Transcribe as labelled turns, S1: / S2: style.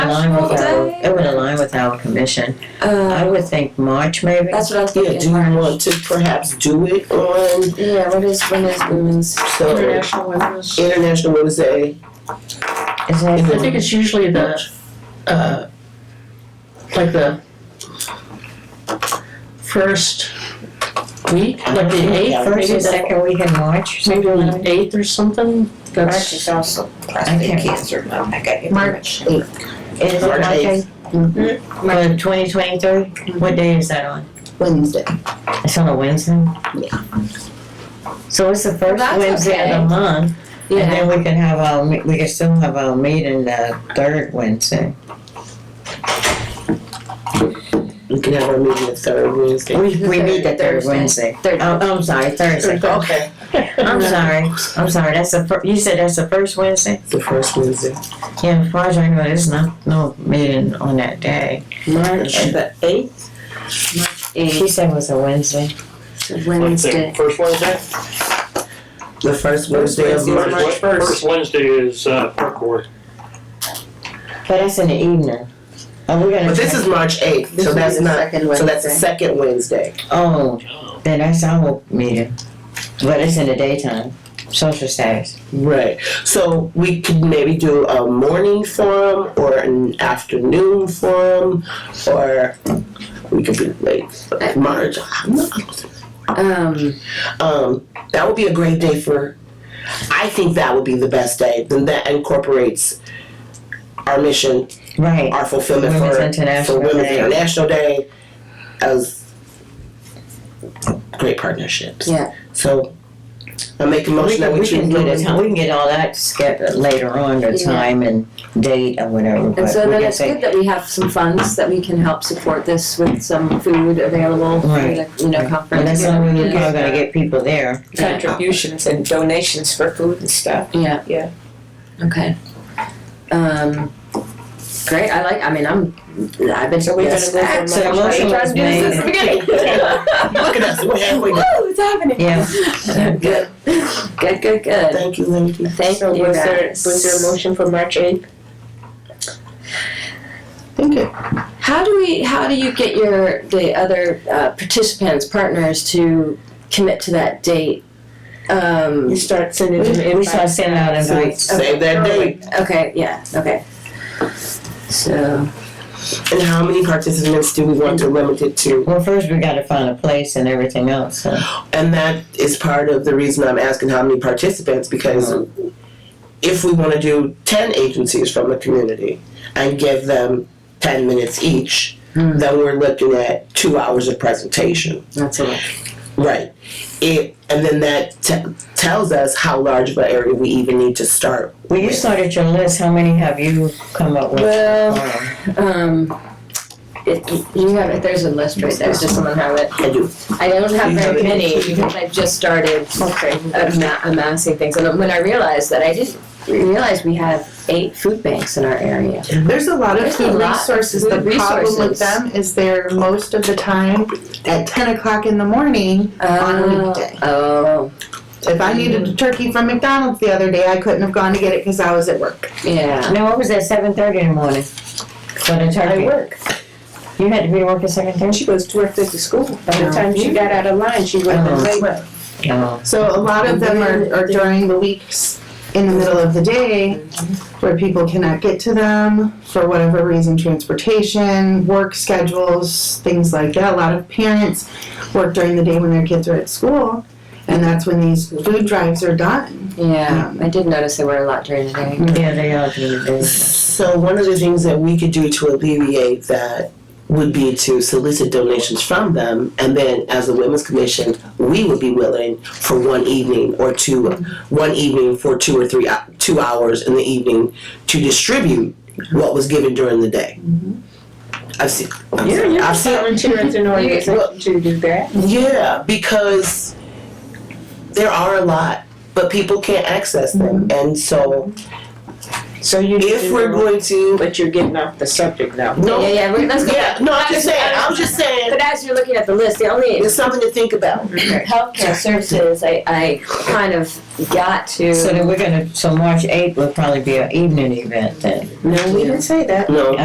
S1: line with our,
S2: Day?
S1: it would align with our commission. I
S2: Uh,
S1: would think March maybe.
S2: that's what I was
S3: Yeah, do
S2: thinking.
S3: you want to perhaps do it on,
S2: Yeah, what is when is women's?
S3: so,
S4: International Women's.
S3: International Women's Day?
S1: Is that-
S3: Is
S4: I think it's usually the, uh, like the first week, like the eighth,
S1: First
S4: maybe
S1: and
S4: the,
S1: second week in March?
S4: maybe the eighth or something.
S5: March
S4: That's,
S5: is also prostate
S1: can't-
S5: cancer month. I got you.
S1: March Is it
S3: March
S1: March
S3: eighth.
S1: eighth? For twenty twenty-three? What day is that on?
S3: Wednesday.
S1: It's on a Wednesday? So it's the first
S2: that's
S1: Wednesday of
S2: okay.
S1: the month, and
S2: Yeah.
S1: then we can have our, me- we can still have our meeting the third Wednesday.
S3: We can have our meeting the third Wednesday.
S1: We, we meet the third
S2: Thursday.
S1: Wednesday.
S2: Third.
S1: Oh, I'm sorry, Thursday.
S3: Okay.
S1: I'm sorry, I'm sorry, that's the fir, you said that's the first Wednesday?
S3: The first Wednesday.
S1: Yeah, as far as I know, there's not, no meeting on that day.
S5: March the eighth. March
S1: She said it was a Wednesday.
S2: Wednesday.
S6: First Wednesday?
S3: The first Wednesday of
S5: Wednesday.
S3: March.
S5: March first.
S6: First Wednesday is, uh, park board.
S1: But that's in the evening. Are we gonna?
S3: But this is March eighth, so that's not, so that's the second Wednesday.
S1: Oh, then that's our meeting. But it's in the daytime, social status.
S3: Right. So we could maybe do a morning forum or an afternoon forum, or we could be like March. I'm not-
S2: Um,
S3: Um, that would be a great day for. I think that would be the best day. Then that incorporates our mission,
S1: Right,
S3: our fulfillment
S1: Women's
S3: for
S1: International
S3: for Women's
S1: Day.
S3: International Day as great partnerships.
S2: Yeah.
S3: So I make a
S1: we
S3: motion that
S1: can,
S3: we
S1: we
S3: choose
S1: can get a
S3: women.
S1: time, we can get all that scheduled later on, the
S2: Yeah.
S1: time and date or whatever, but
S2: and so
S1: we
S2: then
S1: can
S2: it's good
S1: say.
S2: that we have some funds that we can help support this with some food available for the,
S1: Right.
S2: you know,
S1: Well,
S2: conference.
S1: that's the only way you're probably gonna get people there.
S5: Contributions and donations for food and stuff.
S2: Yeah.
S5: Yeah.
S2: Okay. Um, great, I like, I mean, I'm, I've been.
S5: So we're gonna
S2: yes,
S5: move on
S1: So the
S5: March
S1: motion
S5: eighth.
S1: was
S2: This is the
S1: made.
S2: beginning.
S3: Look at us, we're halfway done.
S2: Woo, it's happening.
S1: Yeah.
S2: Good, good, good, good.
S3: Thank you, ladies.
S2: Thank
S5: So
S2: you
S5: was there,
S2: guys.
S5: was there a motion for March eighth?
S3: Thank you.
S2: How do we? How do you get your the other uh, participants, partners, to commit to that date? Um,
S5: You start sending them
S1: We, we start
S5: invites.
S1: sending out invites.
S3: Save that date.
S2: okay, yeah, okay. So
S3: And how many participants do we want to limit it to?
S1: Well, first we gotta find a place and everything else, so.
S3: And that is part of the reason I'm asking how many participants because if we want to do 10 agencies from the community and give them 10 minutes each,
S2: Hmm.
S3: then we're looking at two hours of presentation.
S2: that's it.
S3: Right. It, and then that t- tells us how large of an area we even need to start.
S1: Well, you started your list, how many have you come up with?
S2: Well,
S1: Um,
S2: um, it, you have it. There's a list right there. Just someone have it.
S3: I do.
S2: I don't have
S3: You have
S2: very
S3: it.
S2: many because I just started amma- amassing things. And when I realized that, I didn't realize we have eight food banks in our area.
S7: There's a lot of
S2: There's a
S7: food
S2: lot of
S7: resources.
S2: food
S7: The problem
S2: resources.
S7: with them is they're most of the time at ten o'clock in the morning on a weekday.
S2: Oh,
S7: If I needed a turkey from McDonald's the other day, I couldn't have gone to get it because I was at work.
S2: yeah.
S1: No, I was at seven thirty in the morning for the turkey.
S5: work.
S1: You had to be to work at seven thirty?
S5: She goes to work at the school. By the time she got out of line, she would
S1: Oh.
S5: have been late.
S1: No.
S7: So a lot of them are, are during the weeks in the middle of the day where people cannot get to them for whatever reason, transportation, work schedules, things like that. A lot of parents work during the day when their kids are at school. And that's when these food drives are done.
S2: Yeah, I did notice there were a lot during the day.
S1: Yeah, they are doing the business.
S3: So one of the things that we could do to alleviate that would be to solicit donations from them, and then as a women's commission, we would be willing for one evening or two, one evening for two or three, hou- two hours in the evening to distribute what was given during the day. I've seen, I'm
S5: You're,
S3: sorry,
S5: you're
S3: I've seen,
S5: volunteering at an organization to do that.
S3: yeah, because there are a lot, but people can't access them, and so
S5: So you need
S3: if
S5: to
S3: we're
S5: know-
S3: going to
S5: But you're getting off the subject now.
S3: no.
S2: Yeah, yeah, we're, let's go.
S3: Yeah, no, I'm just saying. I'm just saying.
S2: But as you're looking at the list, the only
S3: It's something to think about.
S2: healthcare services I, I kind of got to.
S1: So then we're gonna, so March eighth will probably be an evening event then.
S5: No, we didn't say that.
S3: No.